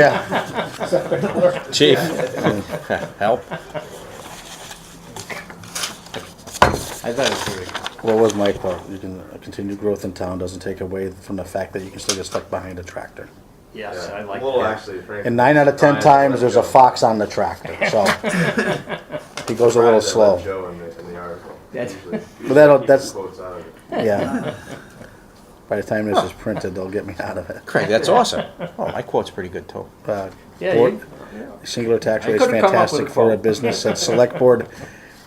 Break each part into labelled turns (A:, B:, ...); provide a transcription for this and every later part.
A: Yeah,
B: Chief, help.
C: I thought it was pretty good.
A: what was my quote? You can, continued growth in town doesn't take away from the fact that you can still get stuck behind a tractor.
C: Yes, I like
D: Well,
C: that.
D: actually, Frank.
A: And nine out of ten
D: Brian,
A: times,
D: let
A: there's
D: Joe-
A: a fox on the tractor, so. He goes a little
D: Brian, let
A: slow,
D: Joe in the, in the article.
C: That's-
D: Usually
A: but that'll,
D: keep
A: that's,
D: quotes out of it.
A: yeah. By the time this is printed, they'll get me out of it.
B: Craig, that's awesome. Oh, my quote's pretty good too.
A: Uh,
C: Yeah,
A: board-
C: you-
A: Singular tax
C: I
A: rate is
C: couldn't come up with
A: fantastic
C: a
A: for a
C: quote.
A: business, said Select Board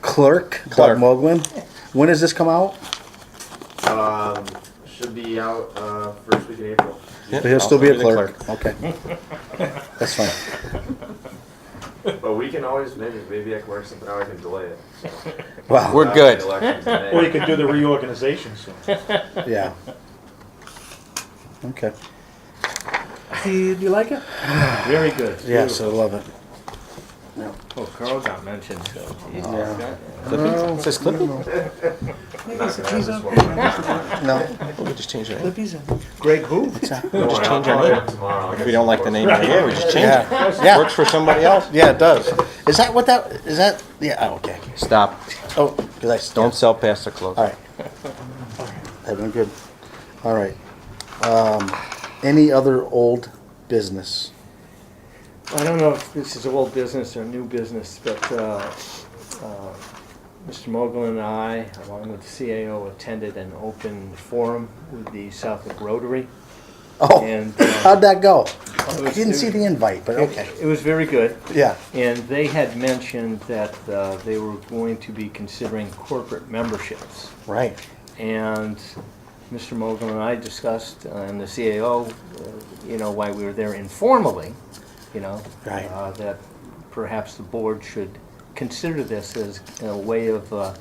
A: Clerk Doug
B: Clerk.
A: Moglen. When does this come out?
D: Um, should be out, uh, first week in April.
B: Yeah,
A: He'll
B: I'll
A: still be a
B: the
A: clerk, okay. That's fine.
D: But we can always, maybe, maybe I can work something out, I can delay it, so.
A: Wow,
B: We're good.
D: The election's in May.
E: Or you could do the reorganization soon.
A: yeah. Okay,
E: Do you like it? Very good.
A: yes, I love it.
C: Oh, Carl got mentioned, so.
A: Yeah.
B: Clippy? It says Clippy?
D: Not gonna have this one.
A: No,
B: Oh, We just change the name.
E: Greg who?
B: We just
D: I'll
B: change our
D: call you
B: name.
D: up tomorrow. I
B: If
D: got
B: we don't
D: some
B: like the
D: quotes.
B: name anymore, we just change it.
A: yeah, yeah,
B: Works for somebody else.
A: yeah, it does. Is that what that, is that, yeah, oh, okay.
B: Stop.
A: Oh, because I still.
B: Don't sell past the close.
A: All right. I've been good. All right. Um, Any other old business?
C: I don't know if this is old business or new business, but uh, uh, Mr. Mogul and I, along with the CAO, attended an open forum with the Southwick Rotary.
A: Oh,
C: And uh,
A: how'd that go?
C: it
A: I
C: was-
A: didn't see the invite, but okay.
C: It was very good.
A: Yeah.
C: And they had mentioned that uh, they were going to be considering corporate memberships.
A: Right.
C: And Mr. Mogul and I discussed, uh, and the CAO, uh, you know, why we were there informally, you know,
A: Right.
C: uh, that perhaps the board should consider this as a way of uh,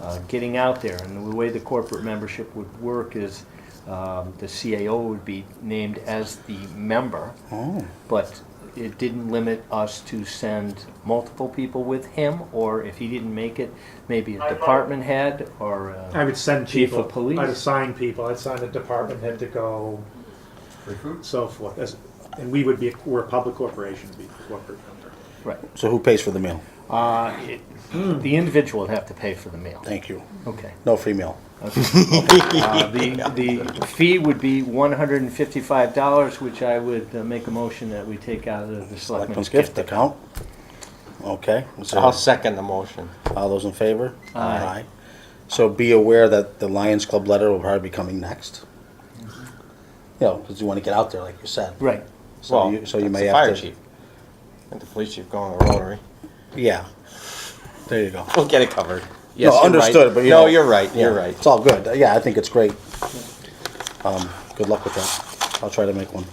C: uh, getting out there. And the way the corporate membership would work is um, the CAO would be named as the member,
A: Oh,
C: but it didn't limit us to send multiple people with him, or if he didn't make it, maybe a department head or. uh,
E: I would send
C: Chief
E: people.
C: of police.
E: I'd assign people. I'd assign a department head to go, so forth. As- And we would be, we're a public corporation, be a corporate member.
C: Right.
A: so who pays for the meal?
C: Uh, it- The individual would have to pay for the meal.
A: Thank you.
C: Okay.
A: No free meal.
C: Uh, The, the fee would be one hundred and fifty-five dollars, which I would uh, make a motion that we take out of the
A: Selectman's
C: selectmen's
A: gift
C: gift.
A: account. Okay. is there-
B: I'll second the motion.
A: All those in favor?
C: Aye.
A: So be aware that the Lions Club letter will probably be coming next. You know, because you want to get out there, like you said.
C: Right.
A: So
B: Well,
A: you,
B: that's
A: so you may
B: the
A: have to.
B: fire chief. And the police chief going to the Rotary.
A: Yeah. There you go.
B: We'll get it covered. Yes,
A: no,
B: you're right.
A: understood. But you
B: No,
A: know-
B: you're right, you're
A: Yeah,
B: right.
A: It's all good. Yeah, I think it's great. Um, good luck with that. I'll try to make one.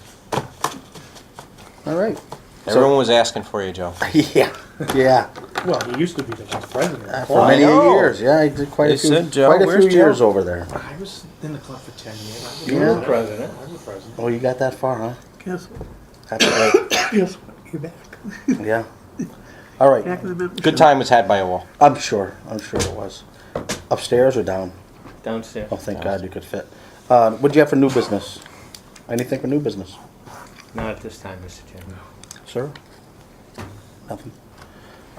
A: All right.
B: Everyone was asking for you, Joe.
A: Yeah. Yeah.
E: Well, he used to be the vice president.
A: Uh,
E: of
A: For
B: I
E: Quad.
A: many
B: know.
A: years. Yeah, I did quite
B: They
A: a few.
B: said, Joe,
A: quite a
B: where's
A: few
B: Joe?
A: years over there.
E: I was in the club for ten years. I was
A: Yeah.
E: president.
C: President.
E: I was president.
A: Oh, you got that far, huh?
F: Guess,
A: That's great.
F: guess what? You're back.
A: yeah. All right.
F: Back in the membership.
B: Good time was had by all.
A: I'm sure. I'm sure it was. Upstairs or down?
C: Downstairs.
A: Oh, thank God you could fit. Uh, what do you have for new business? Anything for new business?
C: Not at this time, Mr. Chairman.
A: Oh. Sir? Nothing.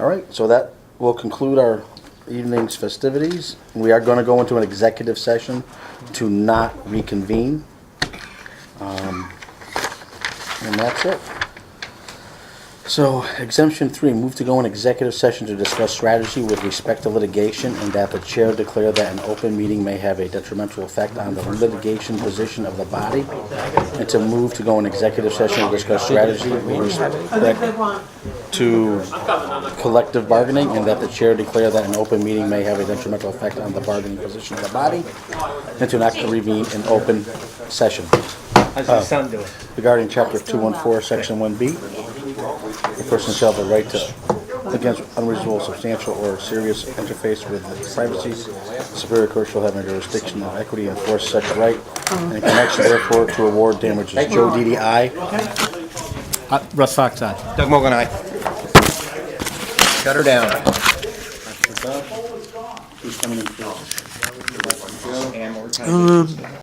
A: All right, so that will conclude our evening's festivities. We are going to go into an executive session to not reconvene. Um, And that's it. So exemption three, move to go in executive session to discuss strategy with respect to litigation and that the chair declare that an open meeting may have a detrimental effect on the litigation position of the body and to move to go in executive session to discuss strategy with respect to collective bargaining and that the chair declare that an open meeting may have a detrimental effect on the bargaining position of the body and to not convene in open session
C: How's your son doing?
A: regarding chapter two one four, section one B. A person shall have the right to, against unreasonable, substantial, or serious interface with privacy. Superior court shall have no jurisdiction or equity to enforce such right and in connection therefore to award damages. Joe DDI.
C: Russ Fox, aye.
B: Doug Mogul, aye. Shut her down.
A: Who's coming in?